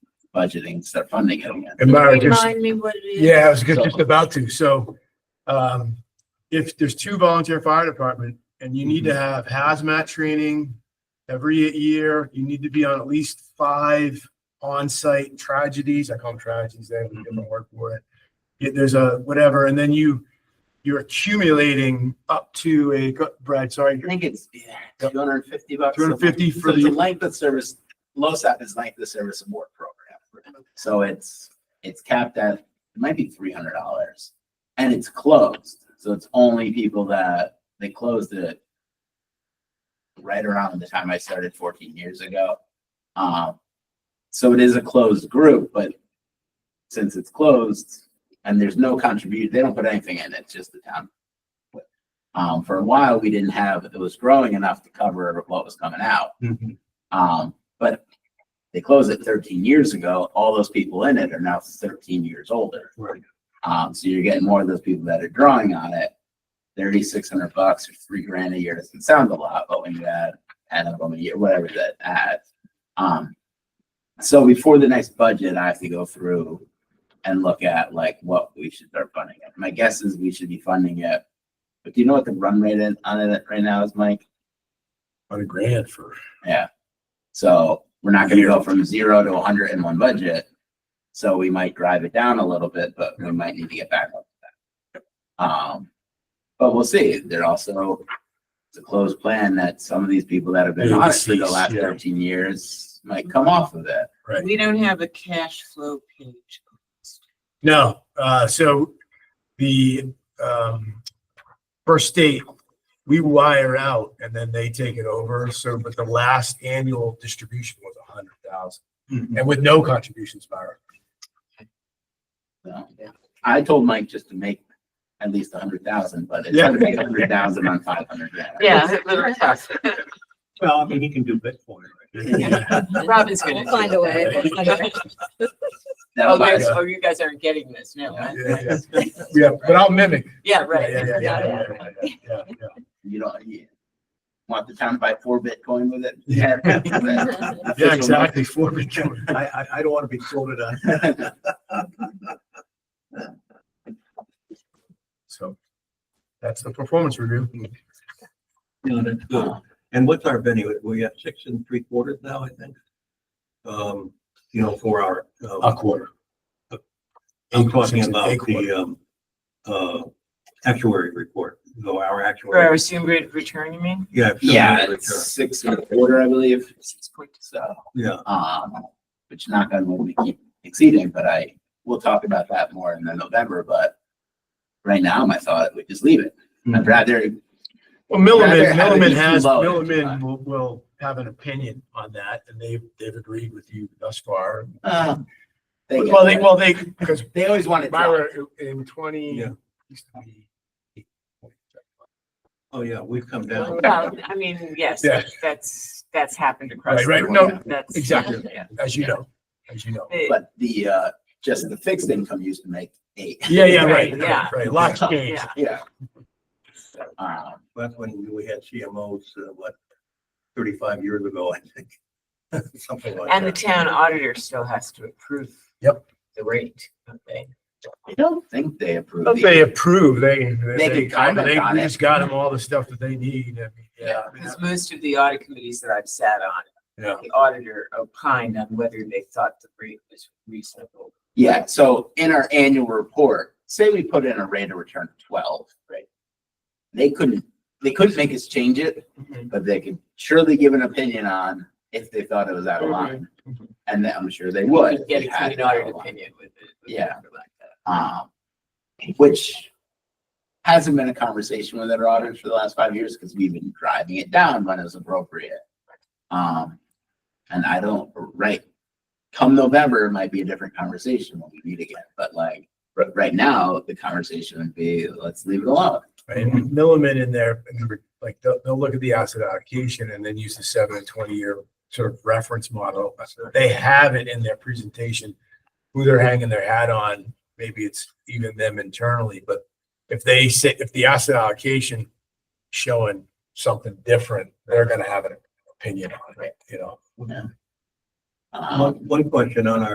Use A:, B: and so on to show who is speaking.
A: budgeting, start funding it again.
B: And Mara just,
C: Remind me what it is.
B: yeah, I was good- just about to. So um, if there's two volunteer fire department and you need to have hazmat training every year, you need to be on at least five on-site tragedies. I call them tragedies, they have a different word for it. Yeah, There's a whatever, and then you, you're accumulating up to a, go- Brad, sorry,
A: I
B: you're-
A: think it's two hundred and fifty bucks. a month.
B: 250 for
A: So it's
B: the-
A: a Length of service, LoSAP is length of service award program. So it's, it's capped at, it might be three hundred dollars. And it's closed, so it's only people that, they closed it right around the time I started fourteen years ago. Um, so it is a closed group, but since it's closed and there's no contribution, they don't put anything in, it's just the town. Um, for a while, we didn't have, it was growing enough to cover what was coming out. Um, but they closed it thirteen years ago. All those people in it are now thirteen years older.
B: Right.
A: Um, so you're getting more of those people that are drawing on it. Thirty-six hundred bucks or three grand a year doesn't sound a lot, but when you add ten of them a year, whatever that adds. Um, so before the next budget, I have to go through and look at like what we should start funding it. My guess is we should be funding it. But do you know what the run rate is on it right now is, Mike?
D: On a grant for.
A: Yeah. So we're not gonna go from zero to hundred in one budget. So we might drive it down a little bit, but we might need to get back up to that. Um, but we'll see. They're also, it's a closed plan that some of these people that have been
D: Yeah,
A: on it for the
D: deceased,
A: last
D: yeah.
A: thirteen years might come off of it.
C: We don't have a cash flow page.
B: No, uh, so the, um, first state, we wire out and then they take it over. So, but the last annual distribution was a hundred thousand
E: Mm-hmm.
B: and with no contributions, Myra.
A: So I told Mike just to make at least a hundred thousand, but it's
B: Yeah.
A: gonna be a hundred thousand on five hundred.
C: Yeah.
D: Well, I mean, he can do Bitcoin.
C: Robin's gonna.
F: We'll find a way. We'll find a way.
C: Oh, there's- oh, you guys aren't getting this, no.
A: Yeah.
B: Yeah, Yeah, but I'll mimic.
C: Yeah,
B: Yeah,
C: right.
B: yeah, yeah, yeah, yeah, yeah, yeah, yeah.
A: you don't, you want the town to buy four Bitcoin with it? Yeah.
B: Yeah, exactly. Four big-
D: I, I, I don't want to be quoted on.
B: So that's the performance review.
E: No, that's good.
A: Um,
E: And what's our venue? We have six and three quarters now, I think. Um, you know, for our,
B: A
E: um,
B: quarter.
E: I'm talking
B: Uh, Six and a
E: about the,
B: quarter.
E: um, uh, actuary report, No, our
C: For our
E: actuary.
C: assumed rate return, you mean?
E: Yeah. so
A: Yeah,
E: we're-
A: it's six and a quarter, I believe,
C: Six point two.
A: so,
E: Yeah,
A: um, which not gonna we keep exceeding, but I, we'll talk about that more in the November, but right now, my thought, we just leave it.
B: Hmm.
A: I'd rather,
B: Well,
A: Rather
B: Milliman,
A: have it
B: Milliman
A: be
B: has,
A: low than too high.
B: Milliman will, will have an opinion on that and they've, they've agreed with you thus far.
A: uh, they get
B: Well, they,
A: it.
B: well, they, because
A: They always want it.
B: Myra in twenty.
E: Yeah. oh, yeah, we've come down.
C: Well, I mean, yes,
B: Yeah.
C: that's, that's happened across.
B: Right, right,
C: the
B: no,
C: board. That's-
B: exactly.
C: yeah.
B: As you know, as you know.
C: It-
A: But the, uh, just the fixed income used to make eight.
B: Yeah, yeah, right,
C: Right, yeah.
B: right. Lots of games.
C: Yeah,
A: Yeah. Um,
E: That's when we had CMOs, uh, what, thirty-five years ago, I think. Something like
C: and the
E: that.
C: town auditor still has to approve.
B: Yep.
C: The rate, okay.
A: I don't think they approve.
B: But they approve, they,
A: They
B: they,
A: can
B: they,
A: comment
B: they
A: on
B: we
A: it.
B: just got them all the stuff that they need. I mean, Yeah.
C: Because most of the audit committees that I've sat on.
B: Yeah.
C: The auditor opined on whether they thought the rate was reasonable.
A: Yeah, so in our annual report, say we put in a rate of return of twelve, right? They couldn't, they couldn't make us change it, but they could surely give an opinion on if they thought it was out of line.
C: Mhm.
A: And that I'm sure they would.
C: Get
A: if
C: a
A: they had
C: clean
A: it out of
C: audit
A: line.
C: opinion with it. with
A: Yeah.
C: it like that.
A: Um, which hasn't been a conversation with our auditors for the last five years because we've been driving it down when it's appropriate. Um, and I don't, right, come November, it might be a different conversation when we meet again, but like, right, right now, the conversation would be, let's leave it alone.
B: Right, and Milliman in there, remember, like, they'll, they'll look at the asset allocation and then use the seven and twenty year sort of reference model. They have it in their presentation, who they're hanging their hat on, maybe it's even them internally, but if they say, if the asset allocation showing something different, they're gonna have an opinion on it, you know?
A: Um,
E: One, one question on our